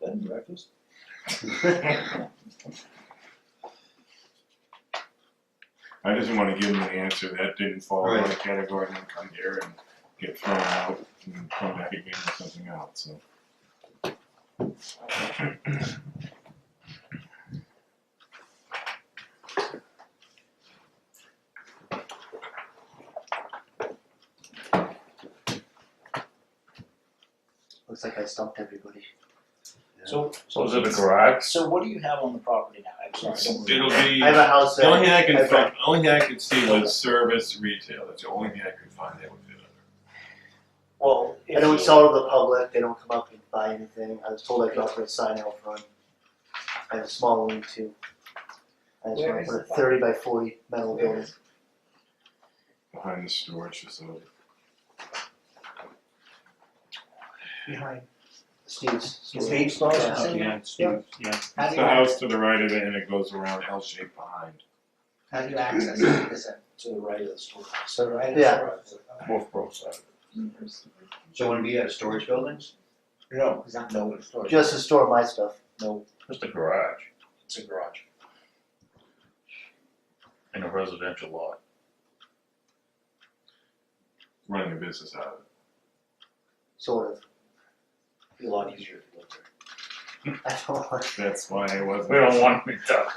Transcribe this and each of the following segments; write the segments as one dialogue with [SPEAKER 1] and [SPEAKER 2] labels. [SPEAKER 1] Bed and breakfast?
[SPEAKER 2] I just want to give them an answer that didn't fall in
[SPEAKER 3] Right.
[SPEAKER 2] my category and then come here and get thrown out and come back again with something else, so.
[SPEAKER 4] Looks like I stumped everybody.
[SPEAKER 1] So,
[SPEAKER 5] So is it a garage?
[SPEAKER 1] so what do you have on the property now? I'm sorry, I don't remember.
[SPEAKER 2] It'll be,
[SPEAKER 4] I have
[SPEAKER 2] the
[SPEAKER 4] a house that.
[SPEAKER 2] only thing I can,
[SPEAKER 4] I've
[SPEAKER 2] find- the only thing I could see was service retail, that's the only thing I could find that would fit under.
[SPEAKER 1] Well,
[SPEAKER 4] I
[SPEAKER 1] if
[SPEAKER 4] don't
[SPEAKER 1] you,
[SPEAKER 4] sell to the public, they don't come up and buy anything, I was told I could offer a sign out front. I have a small one too. I just
[SPEAKER 1] Where
[SPEAKER 4] wanna
[SPEAKER 1] is
[SPEAKER 4] put a
[SPEAKER 1] the-
[SPEAKER 4] thirty by forty metal building.
[SPEAKER 2] Behind the storage facility.
[SPEAKER 4] Behind. Steve's.
[SPEAKER 1] is Dave Starr
[SPEAKER 4] Yeah.
[SPEAKER 1] still there?
[SPEAKER 5] Yeah, it's- yeah.
[SPEAKER 1] How do you,
[SPEAKER 2] It's the
[SPEAKER 1] act-
[SPEAKER 2] house to the right of it and it goes around L shaped behind.
[SPEAKER 1] how do you access it? Is it to the right of the store? So right of the
[SPEAKER 4] Yeah.
[SPEAKER 1] store?
[SPEAKER 5] Both both sides.
[SPEAKER 3] So when we have storage buildings,
[SPEAKER 1] No, it's not no it's store.
[SPEAKER 4] Just to store my stuff.
[SPEAKER 1] No,
[SPEAKER 5] Just a garage
[SPEAKER 1] it's a garage.
[SPEAKER 5] in a residential lot.
[SPEAKER 2] running a business out of it.
[SPEAKER 4] Sort of.
[SPEAKER 1] Be a lot easier to live there.
[SPEAKER 4] I don't want,
[SPEAKER 2] That's why I wasn't.
[SPEAKER 5] We don't want to be tough.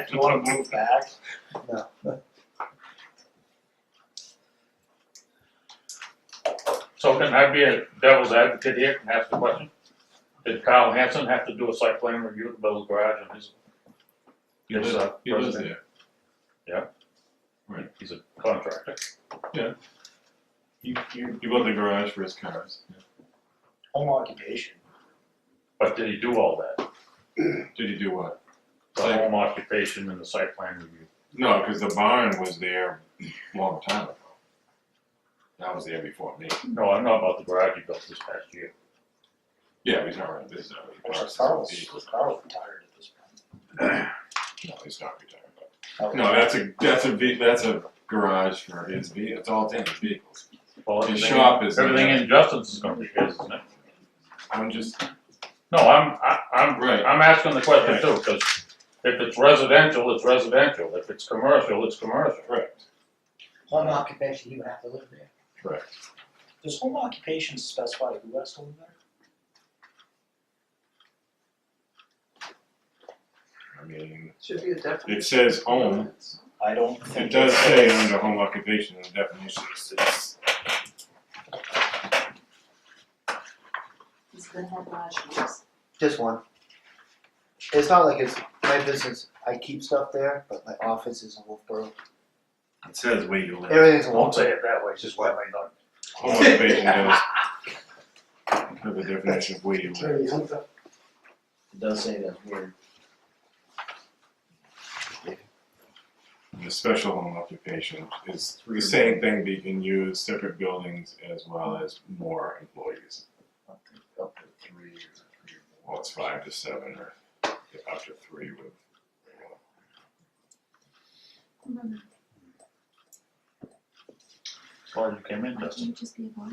[SPEAKER 1] Do you wanna move back?
[SPEAKER 5] So can I be a devil's advocate here and ask the question? Did Kyle Hanson have to do a site plan review to build a garage on his?
[SPEAKER 2] He lives-
[SPEAKER 5] his, uh,
[SPEAKER 2] he lives
[SPEAKER 5] residence?
[SPEAKER 2] there.
[SPEAKER 5] He's a contractor.
[SPEAKER 2] He, he, he built a garage for his cars.
[SPEAKER 1] Home occupation.
[SPEAKER 5] But did he do all that?
[SPEAKER 2] Did he do what?
[SPEAKER 5] The
[SPEAKER 2] Site-
[SPEAKER 5] home occupation and the site plan review?
[SPEAKER 2] No, because the barn was there a long time ago. That was there before me.
[SPEAKER 5] No, I'm not about the garage he built this past year.
[SPEAKER 2] Yeah, he's not running a business out of it. He parks his own
[SPEAKER 1] Carl's,
[SPEAKER 2] vehicles.
[SPEAKER 1] Carl's retired at this
[SPEAKER 2] No, he's not retired. but-
[SPEAKER 1] point.
[SPEAKER 2] No, that's a that's a ve- that's a garage for his vehicle. It's all Dan's vehicles.
[SPEAKER 5] Well,
[SPEAKER 2] His
[SPEAKER 5] everything,
[SPEAKER 2] shop is.
[SPEAKER 5] everything in Justin's is gonna be his, isn't it?
[SPEAKER 2] I'm just
[SPEAKER 5] No, I'm, I, I'm,
[SPEAKER 2] Right.
[SPEAKER 5] I'm asking the question
[SPEAKER 2] Right.
[SPEAKER 5] too, cause if it's residential, it's residential, if it's commercial, it's commercial.
[SPEAKER 2] correct.
[SPEAKER 6] Home occupation, he would have to live there.
[SPEAKER 2] Correct.
[SPEAKER 1] Does home occupation specify who has to live there?
[SPEAKER 2] I mean,
[SPEAKER 6] Should be a
[SPEAKER 2] it
[SPEAKER 6] definition.
[SPEAKER 2] says home.
[SPEAKER 1] I don't
[SPEAKER 2] It
[SPEAKER 1] think.
[SPEAKER 2] does say under home occupation in the definition, it says
[SPEAKER 7] He's gonna have garage doors.
[SPEAKER 4] just one. It's not like it's my business, I keep stuff there, but my office is in Wolfboro.
[SPEAKER 2] It says where you live.
[SPEAKER 4] Everything's in Wolfboro.
[SPEAKER 5] it that way, just why I not.
[SPEAKER 2] Home occupation does have a definition of where you live.
[SPEAKER 1] It does say that word.
[SPEAKER 2] And The special home occupation is the same thing, but you can use separate buildings as well as more employees.
[SPEAKER 1] Up to three years, three or more.
[SPEAKER 2] Well, it's five to seven or up to three with.
[SPEAKER 5] Well, you came in,
[SPEAKER 7] Why
[SPEAKER 5] Justin.
[SPEAKER 7] can't it just be a garage?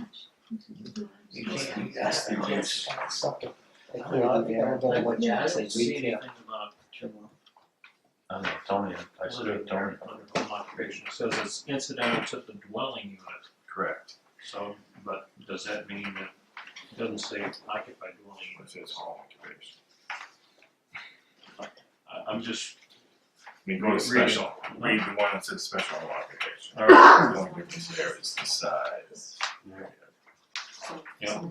[SPEAKER 6] You can't, that's the case.
[SPEAKER 4] I cleared it, yeah, I don't know what
[SPEAKER 6] Yeah, I
[SPEAKER 4] Jack
[SPEAKER 6] don't
[SPEAKER 4] said,
[SPEAKER 6] see
[SPEAKER 4] retail.
[SPEAKER 6] anything about
[SPEAKER 5] I don't know, Tony, I should have Tony.
[SPEAKER 6] under home occupation, it says it's incidental to the dwelling unit,
[SPEAKER 2] Correct.
[SPEAKER 6] so, but does that mean that, it doesn't say occupied dwelling
[SPEAKER 2] It
[SPEAKER 6] unit?
[SPEAKER 2] says home occupation.
[SPEAKER 6] I, I'm just,
[SPEAKER 2] I mean, go to
[SPEAKER 6] Read it.
[SPEAKER 2] special, read the one that says special home occupation.
[SPEAKER 6] alright,
[SPEAKER 2] The only difference there is the size.
[SPEAKER 6] Yeah.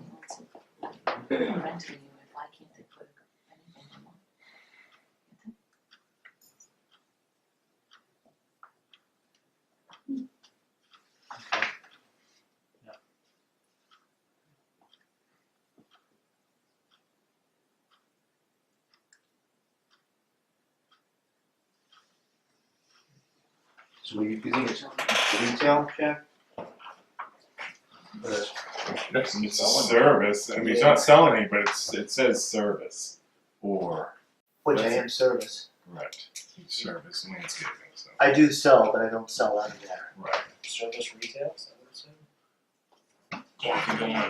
[SPEAKER 7] Renting you, why can't they put anything in one?
[SPEAKER 3] so you you think it's retail, Jack? But it's-
[SPEAKER 2] It's a service, I mean, it's not selling any, but it's, it says service or,
[SPEAKER 4] Which I
[SPEAKER 2] That's
[SPEAKER 4] am service.
[SPEAKER 2] right, service landscaping, so,
[SPEAKER 4] I do sell, but I don't sell out of there.
[SPEAKER 2] right.
[SPEAKER 1] Service retail, is that what it said?
[SPEAKER 2] Walking